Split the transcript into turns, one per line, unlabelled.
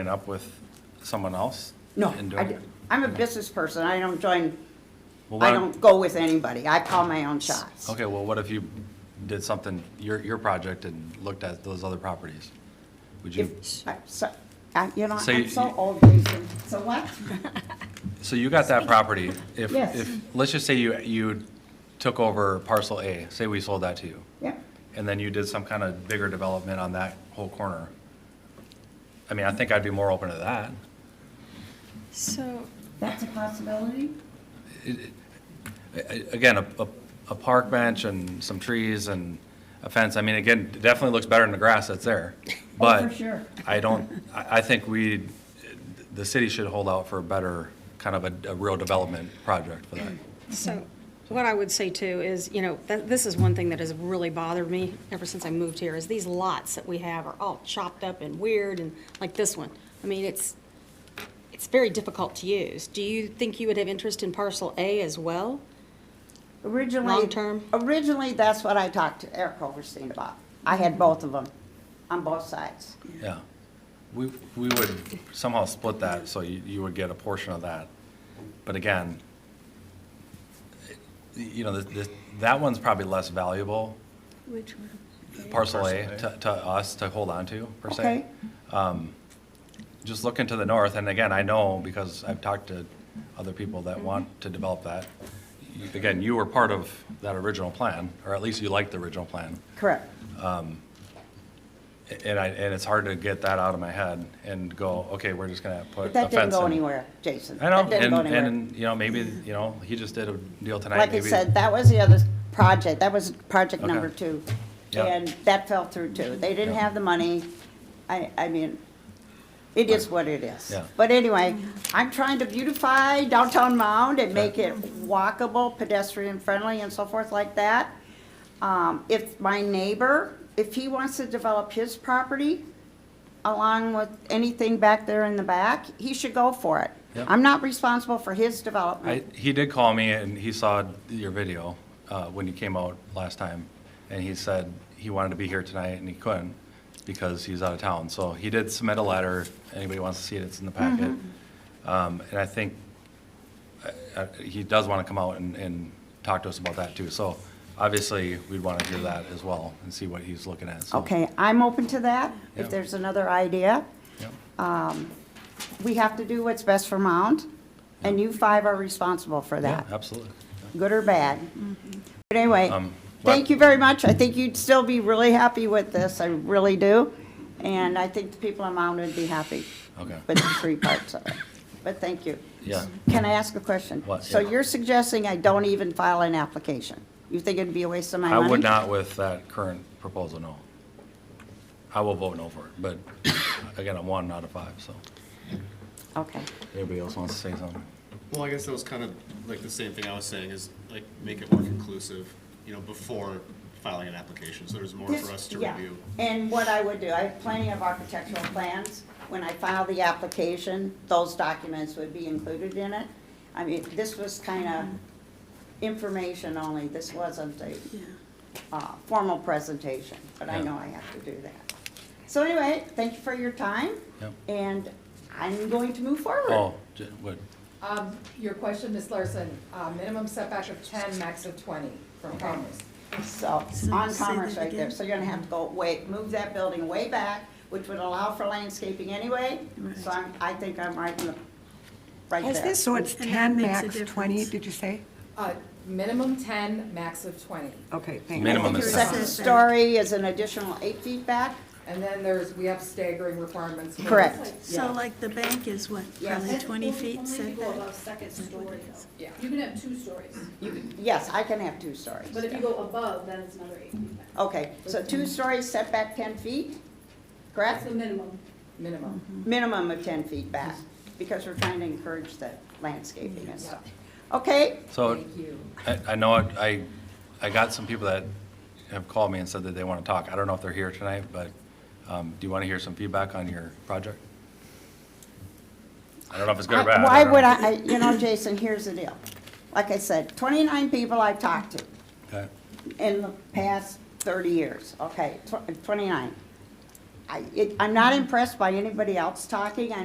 it up with someone else?
No,
And uh,
I,
doing
d-
it?
I'm a business person. I don't join,
Well,
I
what-
don't go with anybody. I call my own shots.
Okay, well, what if you did something, your, your project and looked at those other properties? Would you,
If, I- so, I, you know,
So
I'm
you-
so old, Jason. So what?
so you got that property, if,
Yes.
if, let's just say you, you took over parcel A, say we sold that to you,
Yeah,
and then you did some kind of bigger development on that whole corner. I mean, I think I'd be more open to that.
So,
that's a possibility.
A- Again, a, a- a park bench and some trees and a fence, I mean, again, it definitely looks better in the grass that's there.
Oh, for
But
sure.
I don't, I, I think we, the city should hold out for a better, kind of a, a real development project for that.
so what I would say too is, you know, that, this is one thing that has really bothered me ever since I moved here, is these lots that we have are all chopped up and weird and like this one. I mean, it's, it's very difficult to use. Do you think you would have interest in parcel A as well?
Originally.
Long-term?
Originally, that's what I talked to Eric Overstein about. I had both of them on both sides.
Yeah. We, we would somehow split that, so you, you would get a portion of that. But again, you know, the, the, that one's probably less valuable,
Which one?
parcel A, to, to us to hold on to, per se.
Okay?
just looking to the north, and again, I know because I've talked to other people that want to develop that. You- Again, you were part of that original plan, or at least you liked the original plan.
Correct.
A- And I, and it's hard to get that out of my head and go, okay, we're just gonna put a
But
fence
that didn't go
in."
anywhere, Jason.
I know,
That didn't
and,
go anywhere.
and, you know, maybe, you know, he just did a deal tonight,
Like I
maybe-
said, that was the other project, that was project
Okay.
number two.
Yeah.
And that fell through too. They didn't
Yeah.
have the money. I, I mean, it is what it is.
Yeah.
But anyway, I'm trying to beautify downtown Mound and make it walkable, pedestrian friendly and so forth like that. Um, if my neighbor, if he wants to develop his property along with anything back there in the back, he should go for it.
Yeah.
I'm not responsible for his
I,
development.
he did call me and he saw your video, uh, when you came out last time. And he said he wanted to be here tonight and he couldn't because he's out of town. So he did submit a letter. Anybody wants to see it, it's in the packet. Um, and I think, uh, uh, he does want to come out and, and talk to us about that too. So obviously, we'd want to hear that as well and see what he's looking at, so.
Okay, I'm open to that,
Yeah.
if there's another idea.
Yep.
We have to do what's best for Mound, and you five are responsible for
Yeah,
that,
absolutely.
good or bad. But anyway,
Um, what-
thank you very much. I think you'd still be really happy with this, I really do. And I think the people in Mound would be happy
Okay.
with the three parts of it. But thank you.
Yeah.
Can I ask a question?
What?
So
Yeah.
you're suggesting I don't even file an application? You think it'd be a waste of my
I
money?
would not with that current proposal, no. I will vote no for it, but again, I'm one out of five, so.
Okay.
Anybody else wants to say something?
Well, I guess that was kind of like the same thing I was saying is like make it more conclusive, you know, before filing an application, so there's more
This-
for us to
yeah.
review.
And what I would do, I have plenty of architectural plans. When I file the application, those documents would be included in it. I mean, this was kind of information only, this wasn't a uh, formal presentation, but I
Yeah.
know I have to do that. So anyway, thank you for your time.
Yep.
And I'm going to move forward.
Oh, j- what,
Um, your question, Ms. Larson, uh, minimum setback of ten, max of twenty from Commerce.
So, on Commerce right there, so you're gonna have to go way, move that building way back, which would allow for landscaping anyway, so I'm, I think I'm right in the, right
Is
there.
this, so it's
And that
10,
makes a
max 20,
difference.
did you say?
Uh, minimum ten, max of twenty.
Okay, thank you.
minimum
Your
is
second
seven.
story is an additional eight feet back,
And then there's, we have staggering requirements. for-
Correct.
Yeah.
So like the bank is what, probably
That's
20
only-
feet
Only people
setback?
above second story though.
Yeah.
You can have two stories,
yes, I can have two stories.
but if you go above, then it's another eight feet. back.
Okay, so two stories setback ten feet,
That's
correct?
the minimum.
Minimum.
Minimum of ten feet back, because we're trying to encourage the landscaping and stuff. Okay,
so,
Thank you.
I, I know, it- I, I got some people that have called me and said that they want to talk. I don't know if they're here tonight, but, um, do you want to hear some feedback on your project? I don't know if it's good or
I-
bad.
Uh, Why
don't
would
know.
I, I- you know, Jason, here's the deal. Like I said, 29 people I've talked to
Okay.
in the past 30 years, okay, tw- 29. I, it, I'm not impressed by anybody else talking.